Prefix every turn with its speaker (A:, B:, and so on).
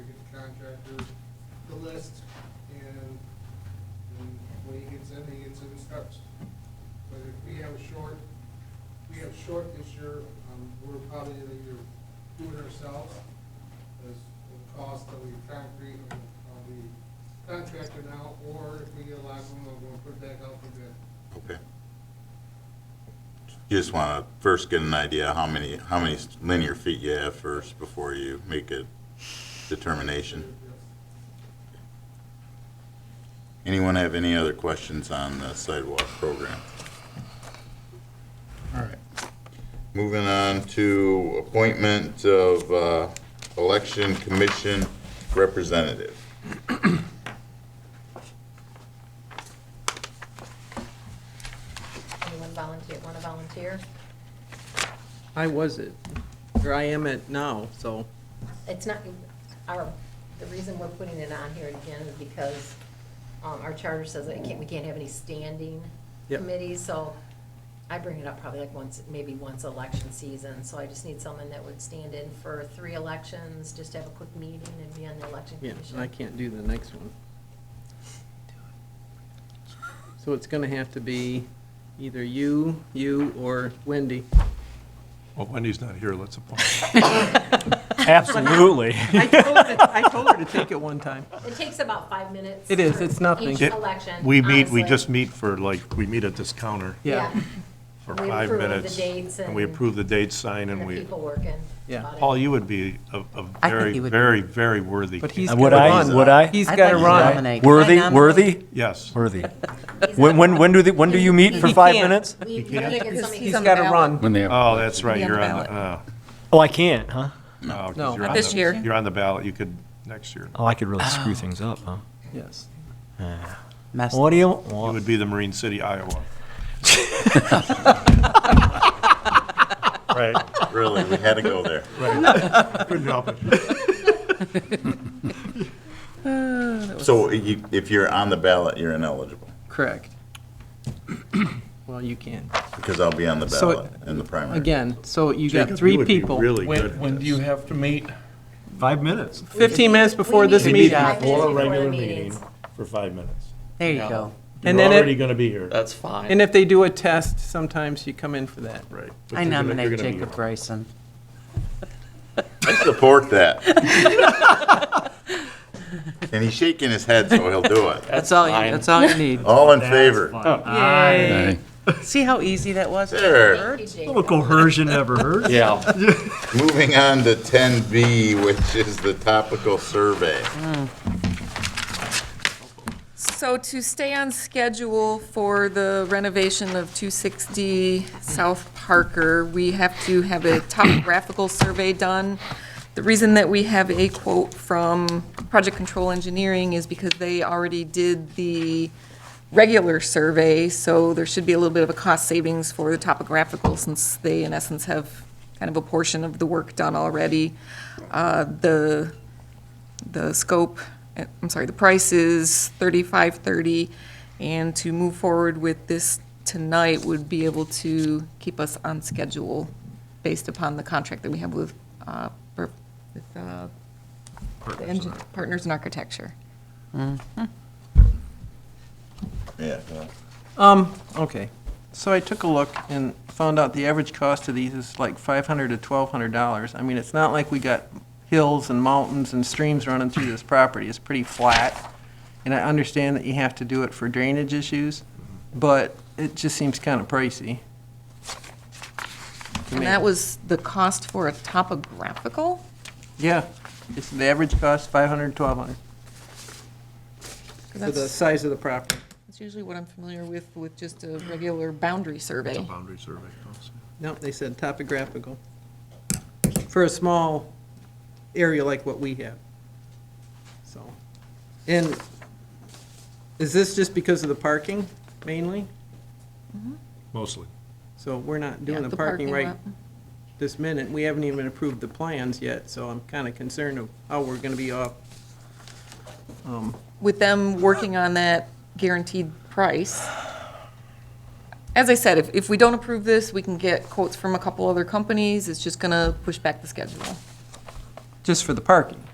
A: contractor the list, and, and when he gets in, he gets in and starts. But if we have a short, we have short this year, um, we're probably gonna either do it ourselves, as the cost of the concrete, and of the contractor now, or if we get a lot of them, we'll put it back out for bid.
B: Okay. You just want to first get an idea of how many, how many linear feet you have first before you make a determination. Anyone have any other questions on the sidewalk program? All right. Moving on to appointment of uh, election commission representative.
C: Anyone volunteer, want to volunteer?
D: I was it, or I am it now, so,
C: It's not, our, the reason we're putting it on here again is because um, our charter says that it can't, we can't have any standing
D: Yep.
C: committees, so I bring it up probably like once, maybe once election season, so I just need someone that would stand in for three elections, just have a quick meeting and be on the election
D: yeah,
C: commission.
D: and I can't do the next one. So it's gonna have to be either you, you, or Wendy.
E: Well, Wendy's not here, let's appoint.
F: Absolutely.
D: I told her, I told her to take it one time.
C: It takes about five minutes.
D: It is,
C: for
D: it's nothing.
C: Each
E: It-
C: election.
E: We meet, we
C: honestly.
E: just meet for like, we meet at this counter
D: Yeah.
E: for
C: We
E: five
C: approve the
E: minutes.
C: dates
E: we
C: and-
E: approve the date sign
C: And
E: and
C: the
E: we,
C: people working.
D: Yeah.
C: about it.
E: Paul, you would be a, a
G: I think
E: very,
G: he would be.
E: very, very worthy.
D: But
E: candidate.
D: he's
F: Would
D: gotta
F: I,
D: run.
F: would I?
D: He's
G: I'd
D: gotta
G: like to
D: run.
G: nominate.
F: Worthy,
G: I nominate-
F: worthy,
E: Yes.
F: worthy. When, when, when do, the- when do you meet for
H: He
F: five
H: can't.
F: minutes?
C: We, we
E: can't?
C: gotta get somebody.
D: He's
H: on the
D: gotta
H: ballot.
D: run.
I: When they have.
E: Oh, that's right,
H: Be on the
E: you're on, the- uh,
F: Oh, I can't, huh?
E: oh, 'cause
D: No.
E: you're
D: Not
E: on
H: this
E: the-
H: year.
E: You're on the ballot, you could, next year.
F: Oh, I could really screw things up, huh?
D: Yes.
G: Mess-
F: What do you,
E: You would be the Marine City, Iowa. Right,
B: Really, we had to go there.
E: couldn't help it.
B: So you- if you're on the ballot, you're ineligible,
D: Correct. Well, you can.
B: because I'll be on the
D: So-
B: ballot in the primary.
D: Again, so you got
E: Jacob, you
D: three
E: would be
D: people.
E: Really good
I: When,
E: at
I: when do
E: this.
I: you have to meet?
E: Five minutes.
D: Fifteen minutes before this
E: We
D: meeting.
G: meet
E: need
G: Yeah.
C: Five minutes
E: before
C: before the
E: regular
C: meetings.
E: meeting for five minutes.
G: There you
I: Yeah.
G: go.
D: And
E: You're
D: then it-
E: already going to be here.
I: That's fine.
D: And if they do a test, sometimes you come in for that.
E: Right. But
G: I
E: you're gonna- you're
G: nominate
E: gonna be
G: Jacob
E: here.
G: Bryson.
B: I support that. And he's shaking his head, so he'll do it.
G: That's all, you- that's all you need.
B: All in favor?
F: Oh,
G: Yay. See how easy that was?
B: There.
C: Thank you, Jacob.
F: Little coercion never hurts.
I: Yeah.
B: Moving on to 10B, which is the topical survey.
H: So to stay on schedule for the renovation of 260 South Parker, we have to have a topographical survey done. The reason that we have a quote from Project Control Engineering is because they already did the regular survey, so there should be a little bit of a cost savings for the topographical, since they in essence have kind of a portion of the work done already. Uh, The the scope, uh, I'm sorry, the price is thirty-five thirty, and to move forward with this tonight would be able to keep us on schedule based upon the contract that we have with, uh, per- with, uh, the engin- Partners in Architecture.
B: Yeah. well,
D: Um, okay. So I took a look and found out the average cost of these is like five hundred to twelve hundred dollars. I mean, it's not like we got hills and mountains and streams running through this property. It's pretty flat. And I understand that you have to do it for drainage issues, but it just seems kind of pricey. to
H: And
D: me.
H: that was the cost for a topographical?
D: Yeah, it's the average cost, five hundred, twelve hundred,
H: 'Cause
D: for the
H: That's
D: size of the property.
H: that's usually what I'm familiar with, with just a regular boundary survey.
E: Boundary survey. also.
D: No, they said topographical. For a small area like what we have. So, and is this just because of the parking mainly?
E: Mostly.
D: So we're not
H: Yeah,
D: doing the parking right
H: lot.
D: this minute. We haven't even approved the plans yet, so I'm kind of concerned of how we're going to be off. Um,
H: with them working on that guaranteed price. As I said, if, if we don't approve this, we can get quotes from a couple other companies. It's just gonna push back the schedule.
D: Just for the parking.